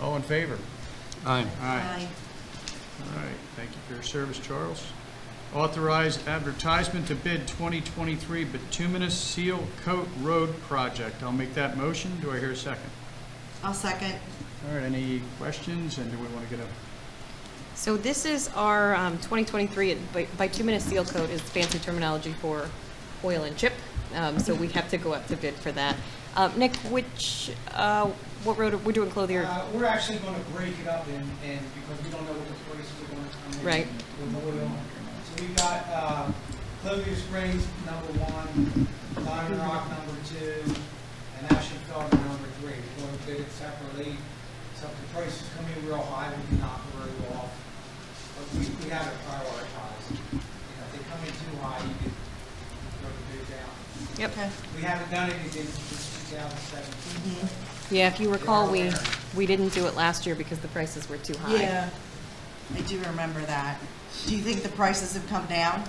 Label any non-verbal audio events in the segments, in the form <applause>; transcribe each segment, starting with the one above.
All in favor? Aye. Aye. All right, thank you for your service, Charles. Authorize advertisement to bid 2023 bituminous seal coat road project. I'll make that motion. Do I hear a second? I'll second. All right, any questions, and do we want to get a, So this is our um, 2023 bi- bituminous seal coat is fancy terminology for oil and chip. Um, So we have to go up to bid for that. Uh, Nick, which, uh, what road, are- we're doing Clothier? Uh, We're actually going to break it up and, and because we don't know what the prices are going to come in. Right. With oil. So we've got uh, Clover Springs, number one, Lime Rock, number two, and Ashen Felder, number three. We're going to bid it separately. So if the prices come in real high, we can knock the road off. But we, we have it prioritized. You know, if they come in too high, you can throw the bid down. Yep. Okay. We haven't done anything since 2017. Yeah, if you recall, we, we didn't do it last year because the prices were too high. Yeah. I do remember that. Do you think the prices have come down?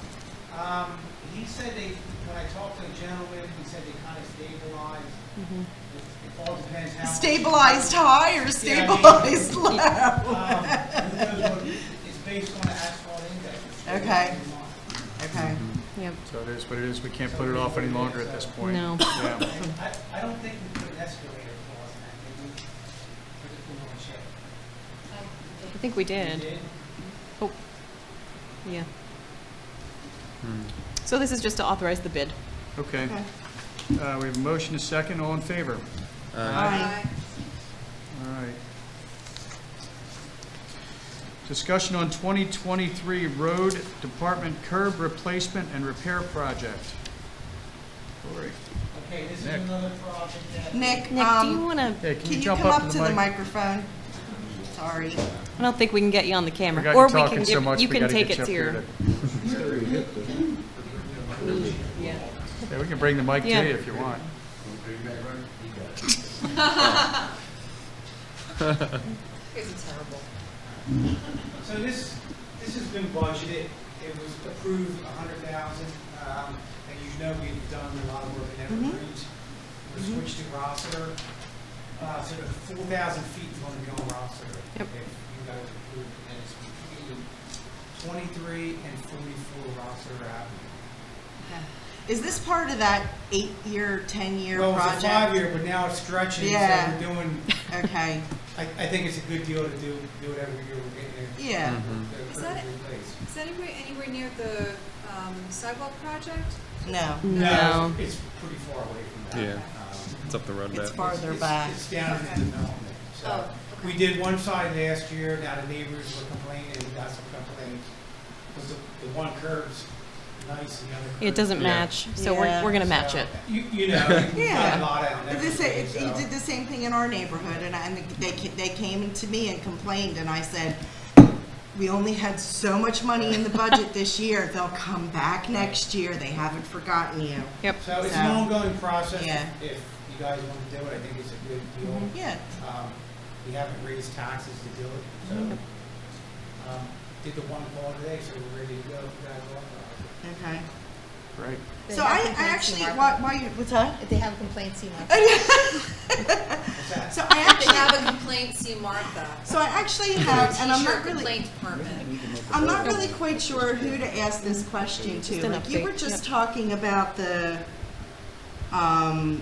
Um, he said they, when I talked to the gentleman, he said they kind of stabilized. It it all depends how. much- Stabilized high or stabilized <laughs> low? <laughs> Um, who knows what- It's based on the asphalt index. It's really Okay. not Okay. mine. Yep. so it is what it is, we can't put it off any longer at this point. No. Yeah. And I, I don't think we put an escalator clause in that, did we? Or did we want to check? I think we We did. did? Oh, yeah. Hmm. So this is just to authorize the bid. Okay, Okay. Uh, we have a motion, a second, all in favor? Aye. All right. Discussion on 2023 Road Department curb replacement and repair project. Lori, Okay, this is Nick. another project that. Nick, Nick, do you um, want to, hey, can can you you jump come up up to to the the mic? microphone? Sorry. I don't think we can get you on the We camera. got you Or we can talking so give- much, You we can gotta take get it to you up your, here to- Yeah, we can bring the mic to you Yeah. if you want. So this, this has been budgeted, it was approved a hundred thousand, um, and you know we've done a lot of work in Evergreen. Mm-hmm. We switched to Rossiter, uh, so the four thousand feet is gonna be on Rossiter. Yep. If you guys approve, it, and it's between twenty-three and forty-four Rossiter Avenue. Is this part of that eight-year, 10-year Well, it's a project? five-year, but now it's stretching, so Yeah. we're doing, Okay, I, I think it's a good deal to do, do it every year, we're getting it. yeah. Is that it? replaced. Is anywhere, anywhere near the um, sidewalk project? Hmm. No, no. it's- It's pretty far away from that. Yeah. Um, It's up the road a it's bit. farther It's- back. It's down in the development, so. Oh, okay. We did one side last year, now the neighbors were complaining, we got some complaints. Because the, the one curve's nice, and the other curve. It doesn't Yeah. match, so we're, Yeah. we're gonna match it. You, you know, you got Yeah. a lot out But there. This, it- he did the same thing in our neighborhood, and I, and they, ca- they came to me and complained, and I said, we only had so much money in the budget this year, they'll come back next year, they haven't forgotten you. Yep. So it's an so- ongoing process, Yeah. Mm-hmm. if you guys want to do it, I think it's a good deal. Yeah, Um, We haven't raised taxes to do it, so. um, Did the one call today, so we're ready to go, if you guys want. okay. Great. So I, I actually, why, why, you- what's that? They have complaints, you know. What's that? So I If they actually, have a complaint, see Martha. so I actually have, and I'm T-shirt not really, Complaint department. I'm not really quite sure who to ask this question Just to. an Like, you update, were just yeah. talking about the, um,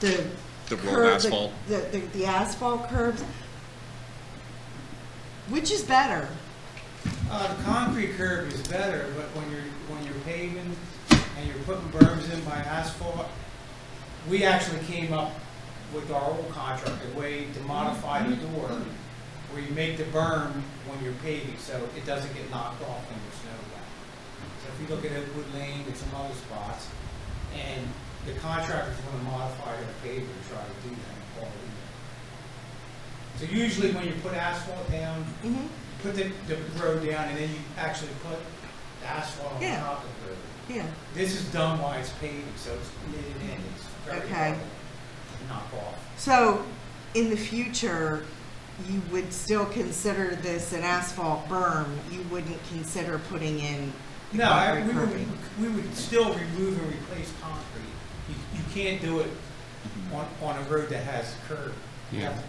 the. The rolled curb- asphalt. The, the, the asphalt curbs. Which is better? Uh, the concrete curb is better, but when you're, when you're paving and you're putting berms in by asphalt, we actually came up with our old contract, a way to modify the door, where you make the berm when you're paving, so it doesn't get knocked off when there's snow back. So if you look at Oakwood Lane and some other spots, and the contractors wanna modify their paving, try to do that, all in there. So usually when you put asphalt down, Mm-hmm. put the, the road down and then you actually put the asphalt on Yeah. top of the road. Yeah, This is done while it's paving, so it's knitted in, it's very Okay. hard to knock off. so in the future, you would still consider this an asphalt berm, you wouldn't consider putting in the No, I- concrete we would, curbing? we would still remove and replace concrete. You, you can't do it on, on a road that has curb. You Yeah. have to